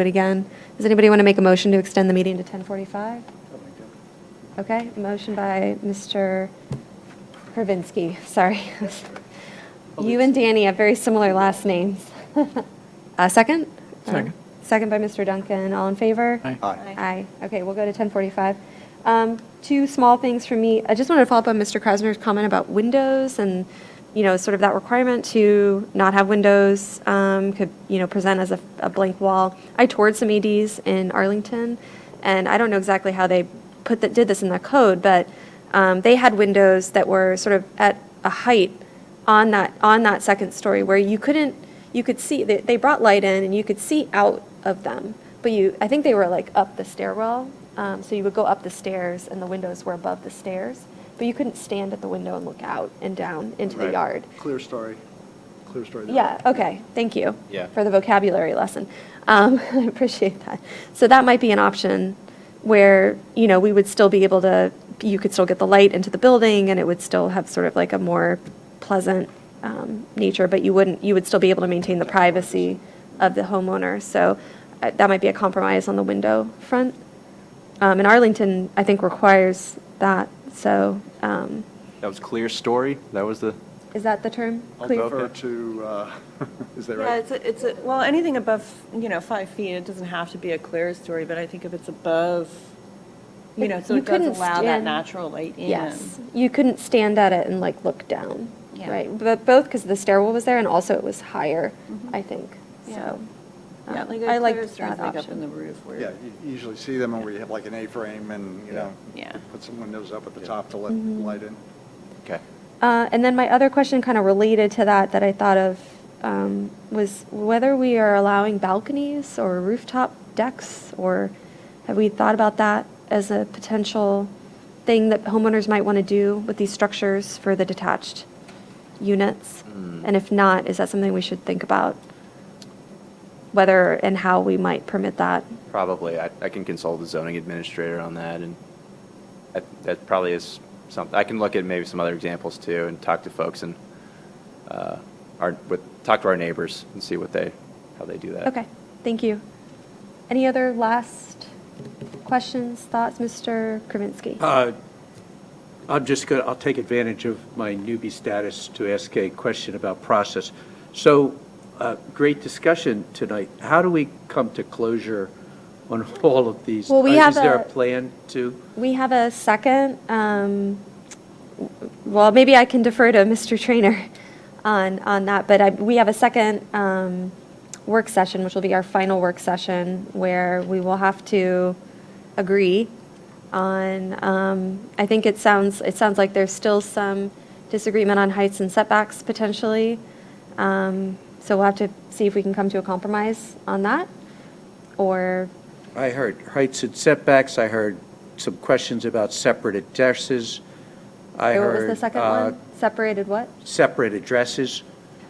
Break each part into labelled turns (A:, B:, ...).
A: it again. Does anybody want to make a motion to extend the meeting to 10:45? Okay, motion by Mr. Hervinsky, sorry. You and Danny have very similar last names. A second? Uh,
B: Second.
A: Second by Mr. Duncan, all in favor?
B: Aye.
C: Aye.
A: Aye. Okay, we'll go to 10:45. Um, Two small things for me. I just wanted to follow up on Mr. Krasner's comment about windows and, you know, sort of that requirement to not have windows um, could, you know, present as a a blank wall. I toured some EDs in Arlington, and I don't know exactly how they put, that did this in the code, but um, they had windows that were sort of at a height on that, on that second story where you couldn't, you could see, they, they brought light in and you could see out of them. But you, I think they were like up the stairwell. Um, so you would go up the stairs and the windows were above the stairs. But you couldn't stand at the window and look out and down into the
C: Right.
A: yard.
C: Clear story, clear story. there.
A: Yeah, okay, thank you.
C: Yeah.
A: For the vocabulary lesson. Um, I appreciate that. So that might be an option where, you know, we would still be able to, you could still get the light into the building and it would still have sort of like a more pleasant um, nature, but you wouldn't, you would still be able to maintain the privacy of the homeowner. So uh, that might be a compromise on the window front. Um, And Arlington, I think, requires that, so um,
D: That was clear story? That was the,
A: is that the term?
C: I'll
A: Cleve?
C: defer to, uh, is that
E: Yeah,
C: right?
E: it's, a- it's, a- well, anything above, you know, five feet, it doesn't have to be a clear story, but I think if it's above, you
A: But
E: know, so
A: you
E: it does
A: couldn't
E: allow that
A: stand-
E: natural light in.
A: Yes, you couldn't stand at it and like look down,
E: Yeah.
A: right? But both because the stairwell was there and also it was higher, I think,
E: Mm-hmm. Yeah.
A: so.
E: Yeah,
A: um,
E: like
A: I
E: a
A: liked
E: clear story
A: that
E: like up in the
A: option.
E: roof where.
C: Yeah, you usually see them where you have like an A-frame and, you know,
E: Yeah.
C: put some windows up at the
D: Yeah.
C: top to let the
A: Mm-hmm.
C: light in.
D: okay.
A: Uh, And then my other question kind of related to that, that I thought of, um, was whether we are allowing balconies or rooftop decks, or have we thought about that as a potential thing that homeowners might want to do with these structures for the detached units? And if not, is that something we should think about? Whether and how we might permit that?
D: Probably. I, I can consult the zoning administrator on that, and that- that probably is something, I can look at maybe some other examples too, and talk to folks and, uh, our, with, talk to our neighbors and see what they, how they do that.
A: Okay, thank you. Any other last questions, thoughts, Mr. Kravinsky?
B: Uh, I'm just going, to I'll take advantage of my newbie status to ask a question about process. So, uh, great discussion tonight. How do we come to closure on all of these?
A: Well, we
B: Uh,
A: have
B: Is there a
A: a-
B: plan to?
A: We have a second, um, well, maybe I can defer to Mr. Trainer on, on that, but I, we have a second um, work session, which will be our final work session, where we will have to agree on, um, I think it sounds, it sounds like there's still some disagreement on heights and setbacks potentially. Um, So we'll have to see if we can come to a compromise on that, or
B: I heard heights and setbacks, I heard some questions about separate addresses, I
A: or what was
B: heard.
A: the second
B: uh,
A: one? Separated what?
B: Separate addresses.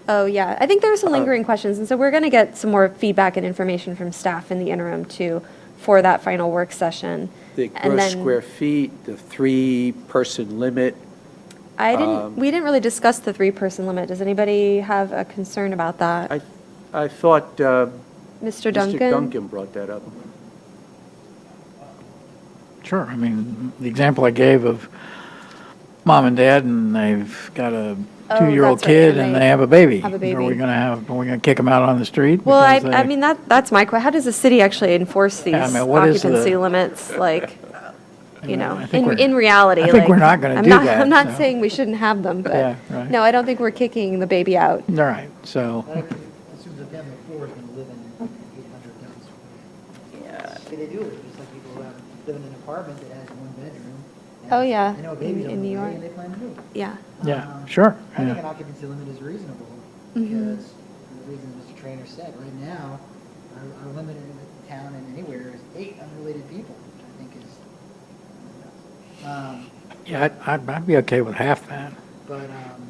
A: Oh, yeah. I think there are some
B: Uh,
A: lingering questions, and so we're going to get some more feedback and information from staff in the interim, too, for that final work session.
B: The
A: And
B: gross
A: then-
B: square feet, the three-person limit.
A: I
B: um,
A: didn't, we didn't really discuss the three-person limit. Does anybody have a concern about that?
B: I, I thought uh,
A: Mr.
B: Mr.
A: Duncan?
B: Duncan brought that up.
F: Sure, I mean, the example I gave of mom and dad, and they've got a
A: Oh,
F: two-year-old
A: that's right, and
F: kid, and
A: they
F: they have a baby.
A: have a
F: Are
A: baby.
F: we gonna have, are we gonna kick them out on the street?
A: Well, I,
F: because
A: I
F: they-
A: mean, that, that's my question. How does the city actually enforce these
F: Yeah, I mean, what is the-
A: occupancy limits, like, you
F: mean,
A: know,
F: I think
A: in,
F: we're-
A: in reality?
F: I think
A: like,
F: we're not gonna
A: I'm
F: do
A: not-
F: that,
A: I'm not
F: so.
A: saying we shouldn't have them,
F: Yeah,
A: but,
F: right.
A: no, I don't think we're kicking the baby out.
F: All right, so,
G: As soon as a family of four is going to live in an 800 Downs
E: Yeah.
G: Square. They do it, just like people who have- live in an apartment that has one bedroom. and
A: Oh, yeah,
G: They know a
A: in-
G: baby's on
A: in
G: the
A: New
G: way
A: York.
G: and they plan to move.
A: Yeah.
F: yeah,
G: Um,
F: sure.
G: I think
F: yeah.
G: an occupancy limit is reasonable,
A: Mm-hmm.
G: because the reason Mr. Trainer said, right now, our, our limit in the town and anywhere is eight unrelated people, which I think is. um,
F: Yeah, I'd- I'd, I'd be okay with half that.
G: But um,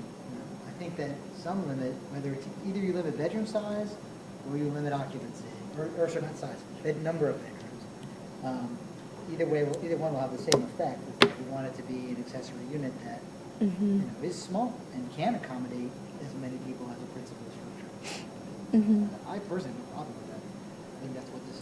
G: I think that some limit, whether it's either you limit bedroom size or you limit occupancy, or, or sorry, not size, but number of bedrooms. Um, Either way, will- either one will have the same effect, is that we want it to be an accessory unit that, you know, is small and can accommodate as many people as a principal structure. I personally have a problem with that. I think that's what this